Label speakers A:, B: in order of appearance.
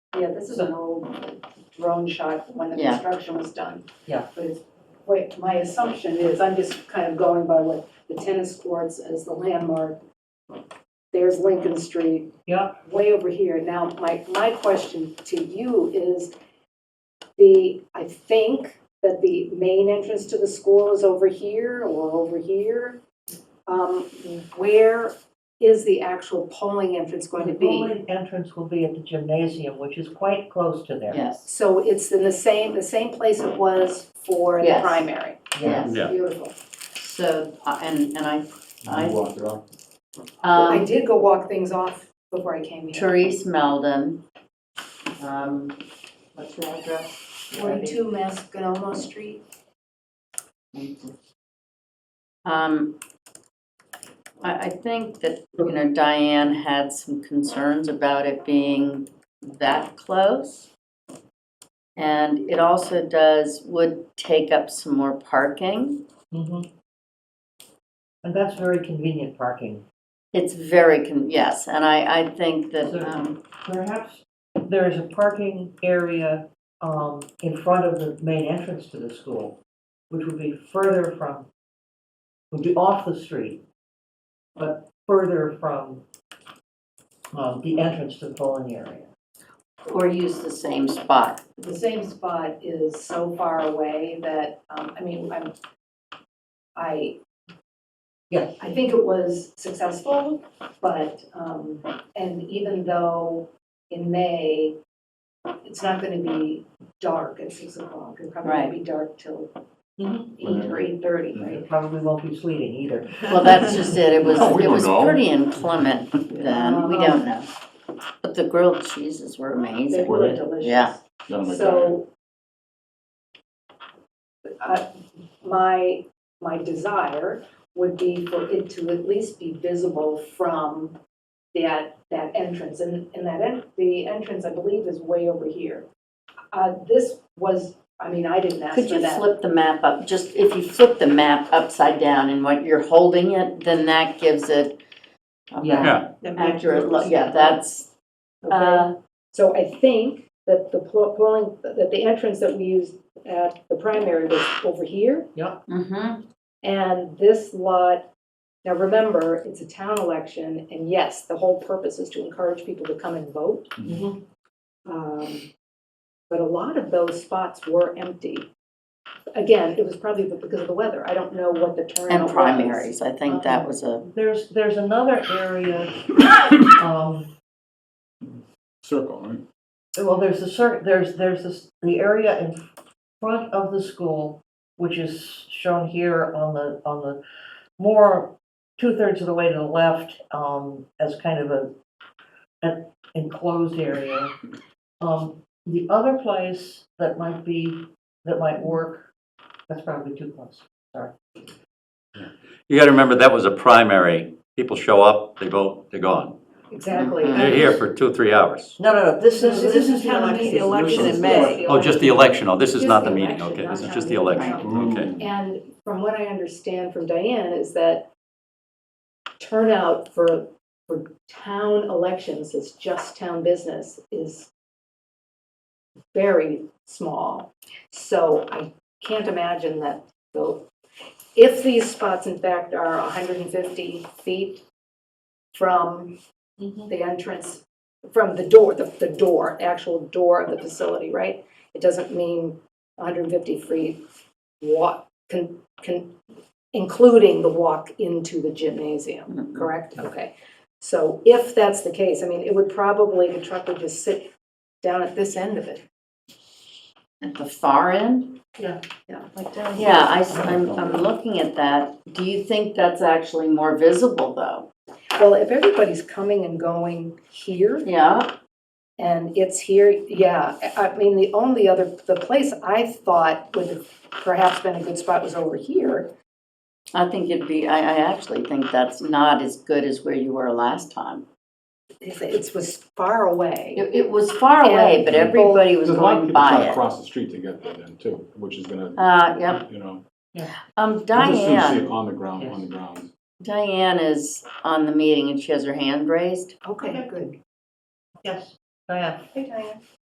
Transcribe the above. A: Yeah, this is an old drone shot when the
B: Yeah.
A: construction was done.
C: Yeah.
A: But it's, wait, my assumption is, I'm just kind of going by what the tennis courts as the landmark. There's Lincoln Street.
C: Yeah.
A: Way over here. Now, my, my question to you is the, I think that the main entrance to the school is over here or over here. Um, where is the actual polling entrance going to
C: The
A: be?
C: only entrance will be at the gymnasium, which is quite close to there.
B: Yes,
A: So it's in the same, the same place it was for the
B: Yes.
A: primary?
B: yes.
D: Yeah.
A: Beautiful.
B: So, uh, and, and I,
D: You
B: I,
D: walked it off.
A: I
B: um,
A: did go walk things off before I came here.
B: Therese Melden, um, what's her address?
A: Forty-two Mascanoma Street.
B: Um, I, I think that, you know, Diane had some concerns about it being that close. And it also does, would take up some more parking.
C: Mhm. And that's very convenient parking.
B: It's very, con- yes, and I, I think that, um,
C: Perhaps there is a parking area um, in front of the main entrance to the school, which would be further from, would be off the street, but further from um, the entrance to the bowling area.
B: or use the same spot.
A: The same spot is so far away that, um, I mean, I'm, I,
C: Yes.
A: I think it was successful, but, um, and even though in May, it's not gonna be dark at six o'clock, it probably won't be dark till
C: Mhm.
A: eight or eight-thirty, right?
C: It probably won't be sleeting either.
B: Well, that's just it, it was,
D: No, we
B: it
D: don't
B: was
D: know.
B: pretty inclement then, we don't know. But the grilled cheeses were
A: They
B: amazing.
D: Were
A: were
D: they?
A: delicious.
B: Yeah.
D: Done with that.
A: So uh, my, my desire would be for it to at least be visible from that, that entrance. And, and that, en- the entrance, I believe, is way over here. Uh, This was, I mean, I didn't ask
B: Could
A: for
B: you
A: that.
B: flip the map up, just if you flip the map upside down and what you're holding it, then that gives it a
C: Yeah.
B: more accurate look, yeah, that's, uh,
A: So I think that the pl- polling, that the entrance that we used at the primary was over here.
B: mhm.
A: And this lot, now remember, it's a town election, and yes, the whole purpose is to encourage people to come and vote.
C: Mhm.
A: Um, But a lot of those spots were empty. Again, it was probably because of the weather. I don't know what the turnout
B: and
A: was.
B: primaries, I think that was a,
C: There's, there's another area, um,
D: Circle, right?
C: Well, there's the cir, there's, there's this, the area in front of the school, which is shown here on the, on the more two-thirds of the way to the left, um, as kind of a, an enclosed area. Um, the other place that might be, that might work, that's probably too close.
E: You gotta remember, that was a primary. People show up, they vote, they're gone.
A: Exactly.
B: Mhm.
E: They're here for two, three hours.
C: No, no, no, this is, this is the
F: town
C: election.
F: meeting election in
A: May.
F: May.
E: Oh, just the election, oh, this is
A: Just
E: not
A: the
E: the meeting,
A: election,
E: okay,
A: not
E: this is
A: town
E: just the
A: meeting.
D: Mm-hmm.
E: election, okay.
A: And from what I understand from Diane is that turnout for, for town elections, it's just town business, is very small. So I can't imagine that, though, if these spots in fact are 150 feet from the entrance, from the door, the, the door, actual door of the facility, right? It doesn't mean 150 feet walk, con, con, including the walk into the gymnasium, correct? Okay. So if that's the case, I mean, it would probably, the truck would just sit down at this end of it.
B: at the far end?
A: Yeah, like down here.
B: Yeah, I, am I'm looking at that. Do you think that's actually more visible though?
A: Well, if everybody's coming and going here
B: Yeah,
A: and it's here, yeah. I I mean, the only other, the place I thought would have perhaps been a good spot was over here.
B: I think it'd be, I, I actually think that's not as good as where you were last time.
A: It it was far away.
B: It, it was far away,
A: And
B: but
A: people-
B: everybody was
D: There's a lot of
B: going
D: people trying
B: by
D: to
B: it.
D: cross the street to get there then too, which is gonna,
B: Uh, yep,
D: you know.
B: um,
D: I just didn't see
B: Diane,
D: it on the ground,
C: Yes.
D: on the ground.
B: Diane is on the meeting and she has her hand raised.
A: Okay, good.
C: Yes, Diane.
A: Hey, Diane.